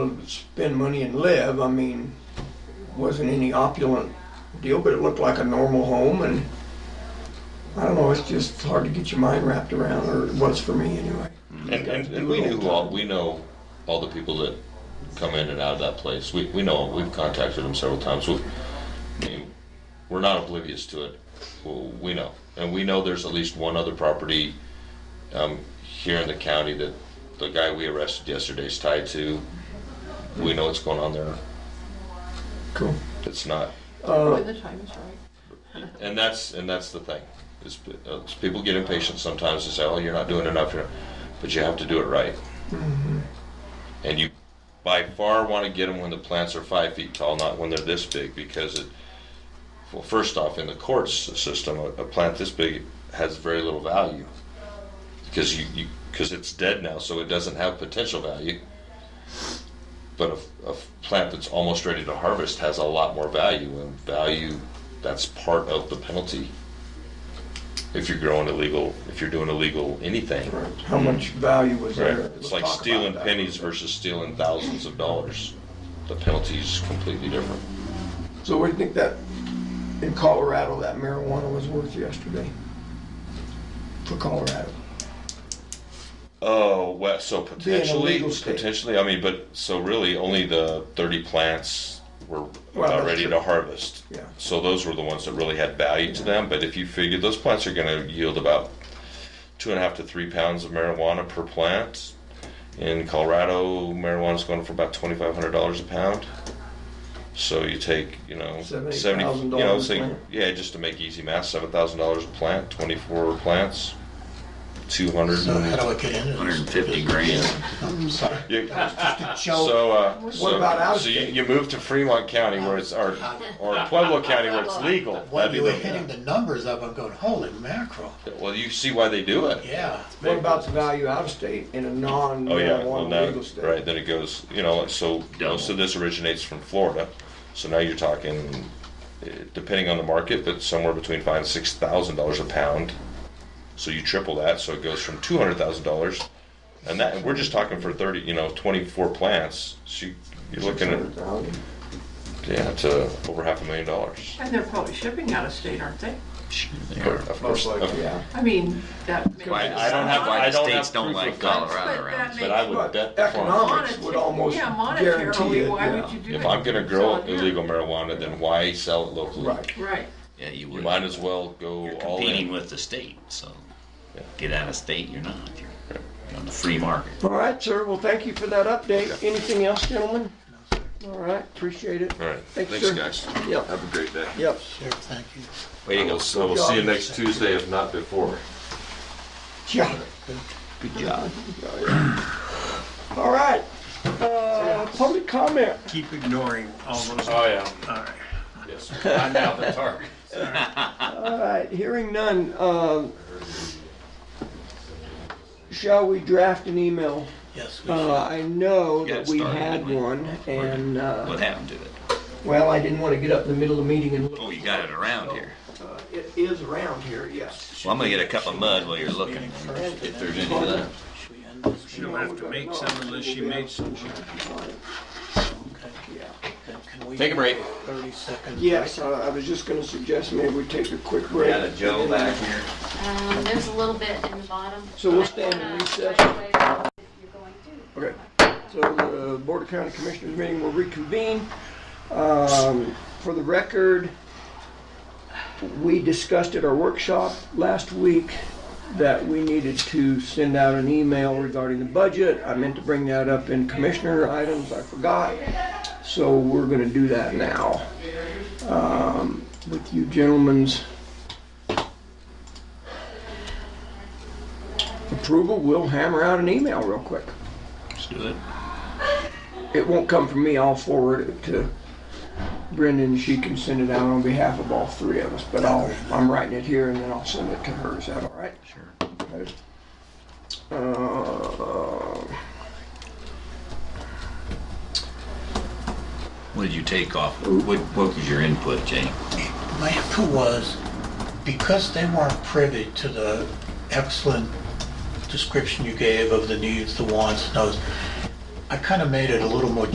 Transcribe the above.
spend money and live. I mean, wasn't any opulent deal, but it looked like a normal home. And I don't know, it's just hard to get your mind wrapped around, or it was for me anyway. And, and, and we knew who all, we know all the people that come in and out of that place. We, we know, we've contacted them several times. We, I mean, we're not oblivious to it. Well, We know. And we know there's at least one other property, um, here in the county that the guy we arrested yesterday's tied to. We know what's going on there. Cool. Uh, It's not, Oh. When the time is right. and that's, and that's the thing. Is, uh, is people get impatient sometimes and say, oh, you're not doing enough, you're not. but you have to do it right. And you by far want to get them when the plants are five feet tall, not when they're this big, because it, well, first off, in the courts system, a, a plant this big has very little value. Because you, you, because it's dead now, so it doesn't have potential value. But a, a plant that's almost ready to harvest has a lot more value, and value, that's part of the penalty. If you're growing illegal, if you're doing illegal anything. Right. How much value was Mm-hmm. Right. there? Let's It's like talk about stealing that. pennies versus stealing thousands of dollars. The penalty's completely different. So what do you think that in Colorado that marijuana was worth yesterday for Colorado? Oh, well, so potentially, legal state. potentially. I mean, but so really, only the thirty plants were Well, about that's ready true. to harvest. Yeah. So those were the ones that really had value to them. But if you figure those plants are going to yield about two and a half to three pounds of marijuana per plant. In Colorado, marijuana's going for about twenty five hundred dollars a pound. So you take, you know, $70,000 seventy, you know, a say, plant. yeah, just to make easy math, seven thousand dollars a plant, twenty four plants, two hundred. So how do I get into this? 150 grand. I'm sorry. So, So, uh, so, about out of so you, state? you move to Fremont County where it's, or, or Pueblo County where it's legal. when That'd be you were the- hitting the numbers up, I'm going, holy mackerel, Well, you see why they do it. yeah. What about the value out of state in a Oh, yeah, non-marijuana well, now, legal state? right, then it goes, you know, so most of this originates from Florida. So now you're talking, eh, depending on the market, but somewhere between five and six thousand dollars a pound. So you triple that, so it goes from two hundred thousand dollars. And that, and we're just talking for thirty, you know, twenty-four plants, so you- you're looking at, $600,000. yeah, to over half a million dollars. And they're probably shipping out of state, aren't they? Sure they are. Of Most course, likely, of- yeah. I mean, that. makes Why, it I don't have- sound- why I the don't states have don't proof like of funds, Colorado but around. that But I would But bet the farm. economics would almost Yeah, guarantee monetarily, it. why yeah. would you do that? If I'm gonna grow Sell it here. illegal marijuana, then why sell it locally? Right. Right. Yeah, you You would. might as well go You're all competing in. with the state, so Yeah. get out of state, you're not. You're on the free market. All right, sir. Well, thank you for that update. Anything else, gentlemen? All right, appreciate it. All right, Thank you, thanks, sir. guys. Yep, Have a great day. yep. Sure, thank you. I will, I will see you next Tuesday, if not before. Yeah. Good job. All right. Uh, public comment. keep ignoring all those. Oh, yeah. All right. Yes. I'm now the target. All right, hearing none. um, Shall we draft an email? Yes, we Uh, I know got that it we started, had didn't we? one and, uh, What happened to it? well, I didn't want to get up in the middle of the meeting and look. Oh, you got it around here. Uh, It is around here, yes. Well, I'm gonna get a cup of mud while you're looking, Meeting first, if there's any left. should we end this? She don't have to make some unless she makes some. Yeah. Can we Take a break. Thirty seconds. Yes, I I was just gonna suggest maybe we take a quick break. Got a Joe back here. Um, there's a little bit in the bottom. So we'll stand in recess. Okay, so the Board of County Commissioners meeting will reconvene. Um, For the record, we discussed at our workshop last week that we needed to send out an email regarding the budget. I meant to bring that up in commissioner items, I forgot. So we're gonna do that now. Um, With you gentlemen's approval, we'll hammer out an email real quick. Let's do it. It won't come from me, I'll forward it to Brendan, she can send it out on behalf of all three of us, but I'll, I'm writing it here and then I'll send it to her, is that all right? Sure. Okay. Uh, What did you take off? What, what was your input, Jane? My input was, because they weren't privy to the excellent description you gave of the needs, the wants, and those, I kind of made it a little more